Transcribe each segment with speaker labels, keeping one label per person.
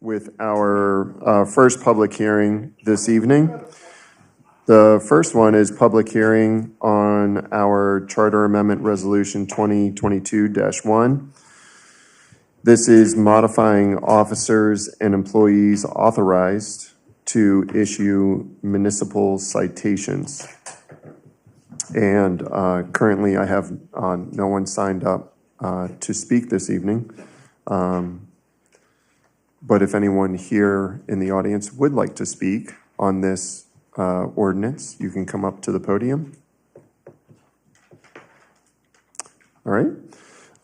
Speaker 1: with our uh, first public hearing this evening. The first one is public hearing on our Charter Amendment Resolution 2022-1. This is modifying officers and employees authorized to issue municipal citations. And uh, currently, I have uh, no one signed up uh, to speak this evening. But if anyone here in the audience would like to speak on this uh, ordinance, you can come up to the podium. All right.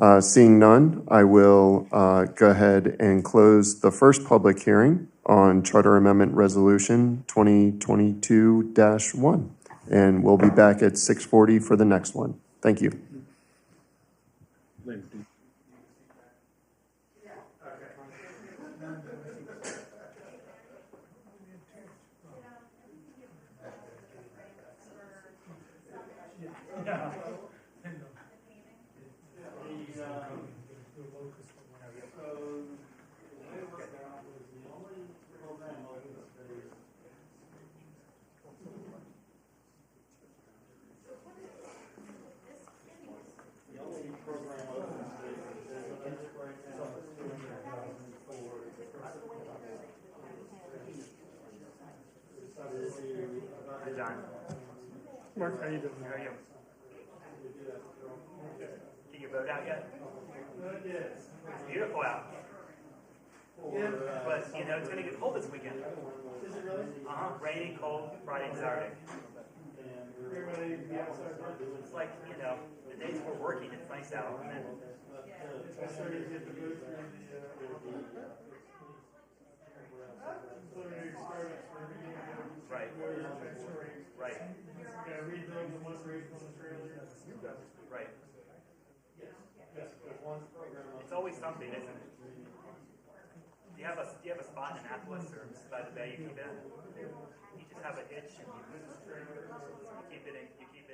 Speaker 1: Uh, Seeing none, I will uh, go ahead and close the first public hearing on Charter Amendment Resolution 2022-1. And we'll be back at 6:40 for the next one. Thank you.
Speaker 2: Hey, John. Mark, how you doing? How are you? Did your boat out yet? It's beautiful out. But, you know, it's gonna get cold this weekend. Uh-huh, rainy, cold, Friday and Saturday. It's like, you know, the days we're working, it's nice out, and then Right. Right. Right. It's always something, isn't it? Do you have a, do you have a spot in Annapolis or by the bay you keep it in? You just have a itch and you, you keep it in, you keep